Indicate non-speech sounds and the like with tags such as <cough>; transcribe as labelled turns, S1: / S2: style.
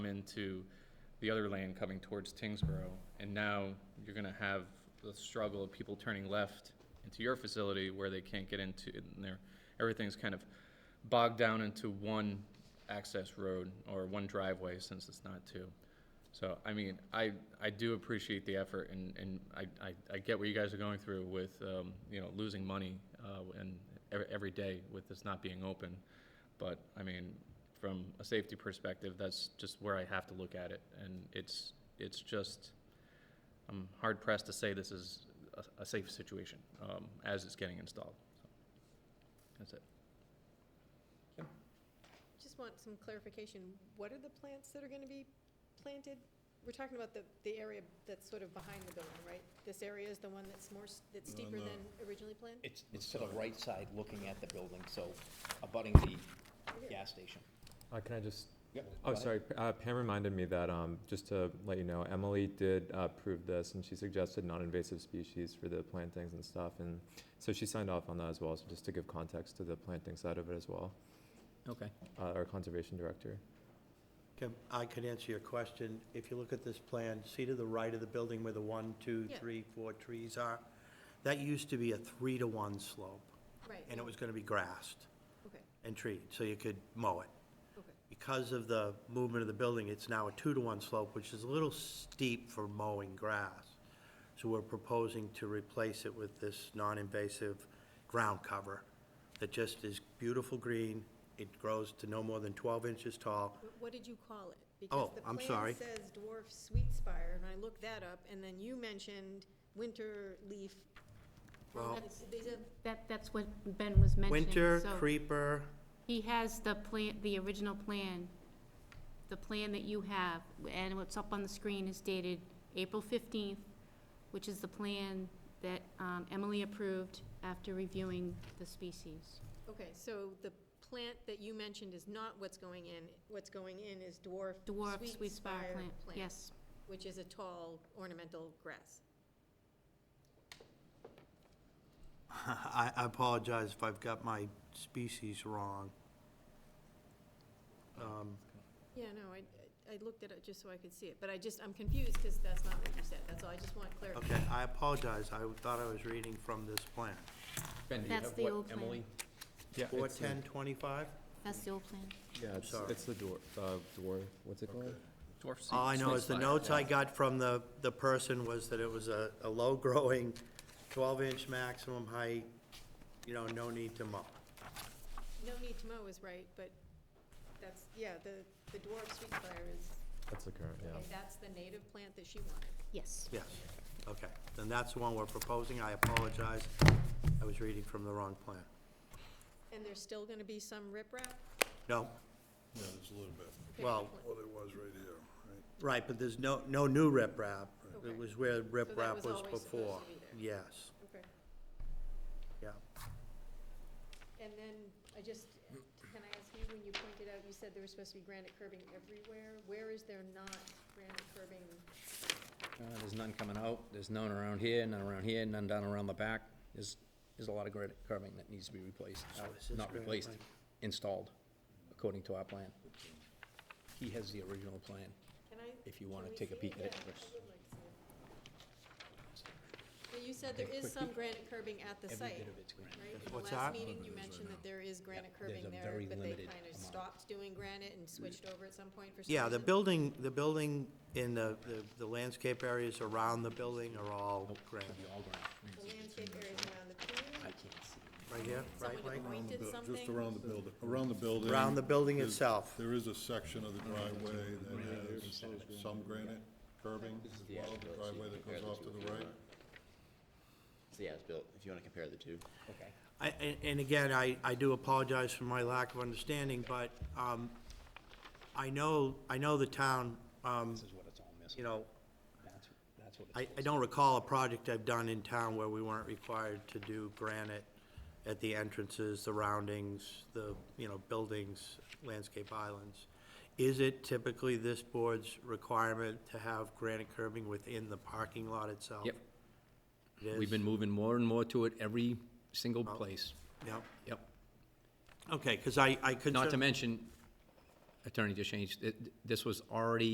S1: into the other lane coming towards Tingsboro. And now you're gonna have the struggle of people turning left into your facility where they can't get into, and they're, everything's kind of bogged down into one access road or one driveway since it's not two. So, I mean, I, I do appreciate the effort and, and I, I, I get what you guys are going through with, um, you know, losing money, uh, and every, every day with this not being open. But, I mean, from a safety perspective, that's just where I have to look at it. And it's, it's just, I'm hard pressed to say this is a, a safe situation, um, as it's getting installed. So, That's it.
S2: Just want some clarification, what are the plants that are gonna be planted? We're talking about the, the area that's sort of behind the building, right? This area is the one that's more, s- that's steeper
S3: no.
S2: than originally planned?
S4: It's, it's to the right side looking at the building, so abutting
S2: Right
S4: the
S2: here.
S4: gas station.
S5: Uh, can I just,
S4: Yep,
S5: oh,
S4: got it.
S5: sorry, P- uh, Pam reminded me that, um, just to let you know, Emily did uh, approve this and she suggested non-invasive species for the plantings and stuff. And so she signed off on that as well, so just to give context to the planting side of it as well,
S4: Okay.
S5: uh, our conservation director.
S3: Kim, I could answer your question. If you look at this plan, see to the right of the building where the one, two,
S2: Yeah.
S3: three, four trees are? That used to be a three-to-one slope,
S2: Right,
S3: and it was gonna be grassed
S2: okay,
S3: and treated, so you could mow it.
S2: okay,
S3: Because of the movement of the building, it's now a two-to-one slope, which is a little steep for mowing grass. So we're proposing to replace it with this non-invasive ground cover that just is beautiful green. It grows to no more than twelve inches tall,
S2: Wh- what did you call it?
S3: Oh, I'm sorry.
S2: Because the plan says dwarf sweet spire, and I looked that up, and then you mentioned winter leaf.
S3: Well-
S2: That's- These are,
S6: That, that's what Ben was mentioning.
S3: Winter,
S6: so
S3: creeper, <laughs>
S6: He has the plan, the original plan, the plan that you have, and what's up on the screen is dated April fifteenth, which is the plan that um, Emily approved after reviewing the species.
S2: okay, so the plant that you mentioned is not what's going in, what's going in is dwarf.
S6: Dwarf sweet spire plant, yes.
S2: Which is a tall ornamental grass.
S3: I I apologize if I've got my species wrong. Um,
S2: Yeah, no, I, I looked at it just so I could see it, but I just, I'm confused because that's not what you said, that's all, I just want
S3: Okay,
S2: clarification.
S3: I apologize, I thought I was reading from this plan.
S1: Ben, do you
S6: That's
S1: have
S6: the
S1: what,
S6: old plan.
S1: Emily?
S5: Yeah.
S3: Four ten twenty-five?
S6: That's the old plan.
S5: Yeah, it's,
S3: sorry.
S5: it's the dwarf, uh, dwarf, what's it called?
S1: Dwarf seed-
S3: All Oh, I know
S1: seed
S3: is the
S1: spire.
S3: notes I got from the, the person was that it was a, a low-growing, twelve-inch maximum height, you know, no need to mow.
S2: No need to mow is right, but that's, yeah, the, the dwarf sweet spire is,
S5: That's the current, yeah.
S2: okay, that's the native plant that she wanted.
S6: Yes.
S3: Yes, okay, then that's the one we're proposing, I apologize, I was reading from the wrong plan.
S2: And there's still gonna be some riprap?
S3: No,
S7: Yeah, there's a little bit.
S2: Okay,
S3: Well,
S2: good point.
S7: What it Oh, was right here, right?
S3: Right, but there's no, no new riprap.
S2: Okay.
S3: It was where riprap
S2: was
S3: was
S2: always supposed to
S3: before.
S2: be there.
S3: Yes,
S2: Okay,
S3: yeah.
S2: and then, I just, can I ask you, when you pointed out, you said there was supposed to be granite curbing everywhere, where is there not granite curbing?
S4: Uh, There's none coming out, there's none around here, none around here, none down around the back. There's, there's a lot of granite curving that needs to be replaced, uh,
S3: this is
S4: not
S3: granite
S4: replaced,
S3: line.
S4: installed, according to our plan. He has the original plan.
S2: Can I?
S4: If you
S2: can
S4: wanna
S2: we
S4: take a
S2: see
S4: peek at it
S2: Yeah, I
S4: first.
S2: would like to see it. Well, you said there is some granite curbing at the
S4: Every
S2: site,
S4: bit of it's granite.
S2: right? In the
S3: What's
S2: last
S3: that?
S2: meeting, you mentioned that there is granite
S4: there's
S2: curbing
S4: a
S2: there,
S4: very
S2: but they
S4: limited
S2: kind of
S4: amount. Mm.
S2: stopped doing granite and switched over at some point for some
S3: Yeah, the
S2: reason.
S3: building, the building in the, the- the landscape areas around the building are all granite.
S4: All granite.
S2: The landscape areas around the
S4: I
S2: pool,
S4: can't see.
S3: Right here, right,
S2: someone
S3: Mike?
S2: had pointed
S7: Bu-
S2: something.
S7: Just around the building, around the building.
S3: Around the building
S7: is-
S3: itself.
S7: There is a section of the driveway that has some granite curbing, well, the driveway that goes off to the right.
S8: So yeah, it's built, if you want to compare the two.
S4: Okay.
S3: I- And and again, I, I do apologize for my lack of understanding, but um, I know, I know the town, um,
S4: This is what it's all
S3: you
S4: missing.
S3: know,
S4: That's, that's what it's.
S3: I, I
S4: supposed to
S3: don't recall a project I've done in town where we weren't required to do granite at the entrances, the roundings, the, you know, buildings, landscape islands. Is it typically this board's requirement to have granite curbing within the parking lot itself?
S9: Yep.
S3: It is?
S9: We've been moving more and more to it every single place.
S3: Yep,
S9: Yep.
S3: okay, because I, I could.
S9: Not to mention,
S4: attorney just changed, it, this was already